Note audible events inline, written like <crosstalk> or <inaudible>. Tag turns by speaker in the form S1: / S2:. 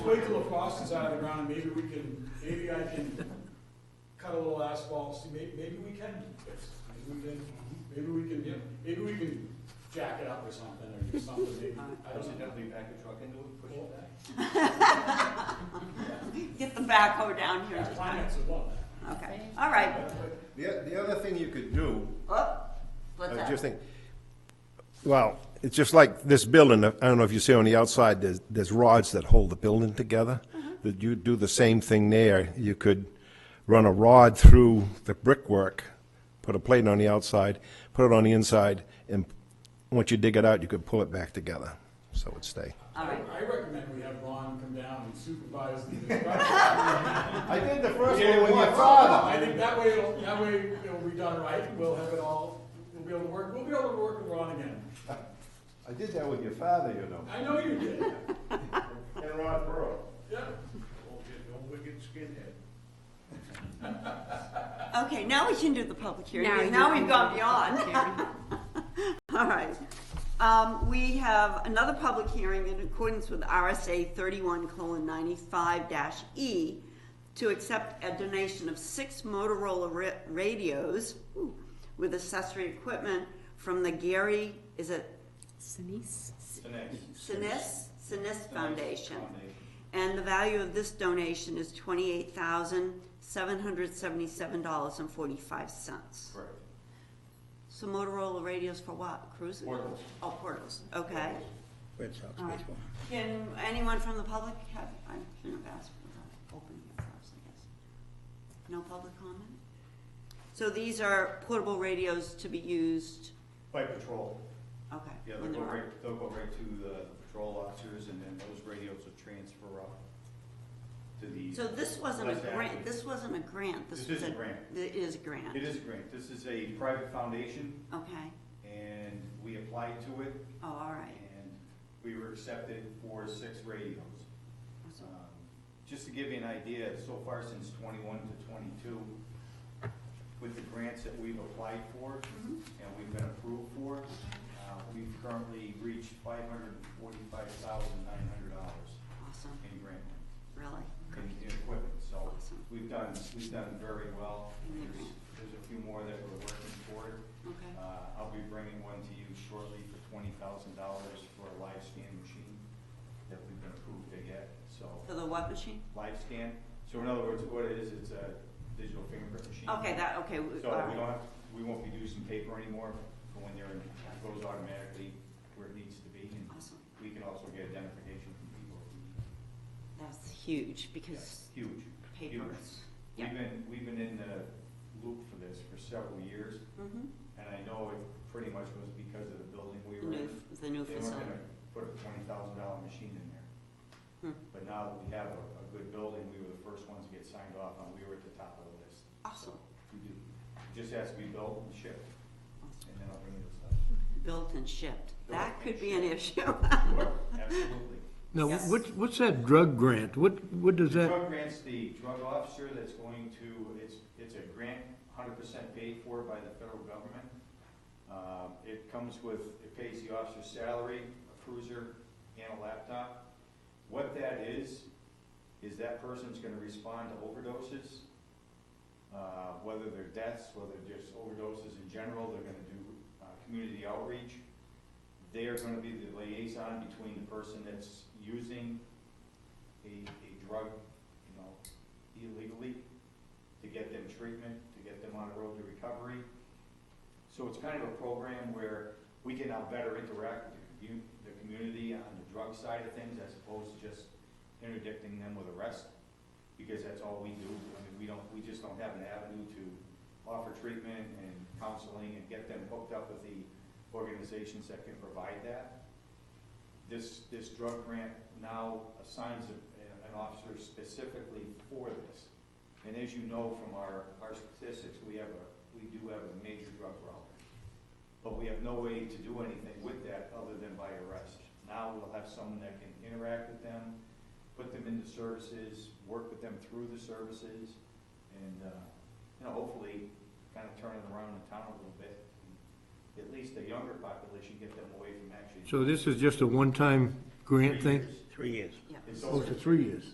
S1: Wait till the frost is out of the ground, and maybe we can, maybe I can cut a little asphalt, see, maybe, maybe we can fix it. Maybe we can, maybe we can, yeah, maybe we can jack it up or something, or do something, maybe, I
S2: Does
S1: don't
S2: it
S1: know.
S2: have to be back a truck into it, push it back?
S3: Get the backhoe down here.
S1: The Finance would love that.
S3: Okay, all right.
S4: The, o- the other thing you could do,
S3: Oh,
S4: I
S3: what's
S4: was
S3: that?
S4: just think, well, it's just like this building, I don't know if you see on the outside, there's, there's rods that hold the building together. That you do the same thing there, you could run a rod through the brickwork, put a plate on the outside, put it on the inside, and once you dig it out, you could pull it back together, so it'd stay.
S3: All right.
S1: I recommend we have Ron come down and supervise
S3: <laughs>
S1: the construction.
S4: I did the first
S2: one with your
S1: I think that way, it'll- that way it'll be done right, and we'll have it all, we'll be able to work, we'll be able to work with Ron again.
S4: I did that with your father, you know.
S1: I know you did,
S2: And Rod Burrow.
S1: yeah.
S2: Don't get, don't wicked skinhead.
S3: Okay, now we can do the public hearing.
S5: Now you
S3: because Now
S5: can
S3: we've
S5: do
S3: gone
S5: the
S3: beyond. <laughs> All right. Um, we have another public hearing in accordance with RSA thirty-one colon ninety-five dash E to accept a donation of six Motorola ra- radios ooh, with accessory equipment from the Gary, is it
S5: Sinise?
S2: The next.
S3: Sinis, Sinis Foundation. And the value of this donation is twenty-eight thousand, seven hundred seventy-seven dollars and forty-five cents.
S2: Correct.
S3: So Motorola radios for what, cruisers?
S2: Portables.
S3: Oh, portables, okay. Can anyone from the public have, I shouldn't have asked without opening it first, I guess. No public comment? So these are portable radios to be used,
S2: By patrol.
S3: okay.
S2: Yeah,
S3: when
S2: they'll go
S3: they're on.
S2: right, they'll go right to the patrol officers and then those radios will transfer up to the.
S3: So this wasn't a
S2: Less active.
S3: grant, this wasn't a grant, this
S2: This
S3: was
S2: is
S3: a.
S2: a grant.
S3: It is a grant.
S2: It is a grant. This is a private foundation
S3: Okay,
S2: and we applied to it
S3: oh, all right.
S2: and we were accepted for six radios. Um, Just to give you an idea, so far since twenty-one to twenty-two, with the grants that we've applied for
S3: Mhm.
S2: and we've been approved for, uh, we've currently reached five hundred and forty-five thousand nine hundred dollars
S3: Awesome,
S2: in grant,
S3: really,
S2: in in equipment, so
S3: Awesome.
S2: we've done, we've done very well. There's, there's a few more that we're working toward.
S3: okay,
S2: Uh, I'll be bringing one to you shortly for twenty thousand dollars for a live scan machine that we've been approved to get, so.
S3: for the what machine?
S2: Live scan, so in other words, what it is, it's a digital fingerprint machine.
S3: Okay, that, okay, we-
S2: So
S3: all
S2: we
S3: right,
S2: don't have, we won't be using paper anymore, but when they're, in- it goes automatically where it needs to be, and
S3: awesome,
S2: we can also get identification from people.
S3: that's huge, because
S2: Huge.
S3: papers,
S2: We've
S3: Yeah.
S2: been, we've been in the loop for this for several years,
S3: mm-hmm,
S2: and I know it pretty much was because of the building we were in.
S3: new, the new
S2: They weren't
S3: facility,
S2: gonna put a twenty thousand dollar machine in there.
S3: Hmm.
S2: But now that we have a, a good building, we were the first ones to get signed off on, we were at the top of the list.
S3: awesome,
S2: We do, just has to be built and shipped,
S3: awesome.
S2: and then I'll bring you this
S3: built and shipped, that
S2: Built
S3: could
S2: and
S3: be an issue.
S2: up. Absolutely.
S6: Now,
S3: <laughs> Yes.
S6: what, what's that drug grant? What, what does
S2: The
S6: that,
S2: drug grant's the drug officer that's going to, it's, it's a grant, hundred percent paid for by the federal government. Um, it comes with, it pays the officer's salary, a cruiser, and a laptop. What that is, is that person's gonna respond to overdoses, uh, whether they're deaths, whether just overdoses in general, they're gonna do, uh, community outreach. They are gonna be the liaison between the person that's using a, a drug, you know, illegally, to get them treatment, to get them on the road to recovery. So it's kind of a program where we can now better interact with the commu, the community on the drug side of things as opposed to just interdicting them with arrest, because that's all we do. I mean, we don't, we just don't have an avenue to offer treatment and counseling and get them hooked up with the organizations that can provide that this, this drug grant now assigns a- an officer specifically for this. And as you know from our, our statistics, we have a, we do have a major drug problem. But we have no way to do anything with that other than by arrest. Now we'll have someone that can interact with them, put them into services, work with them through the services, and, uh, you know, hopefully kind of turn it around in town a little bit. At least the younger population, get them away from actually.
S6: so this is just a one-time grant
S2: Three
S6: thing?
S2: years.
S3: Yeah.
S2: It's
S6: Oh,
S2: over.
S6: it's a three years.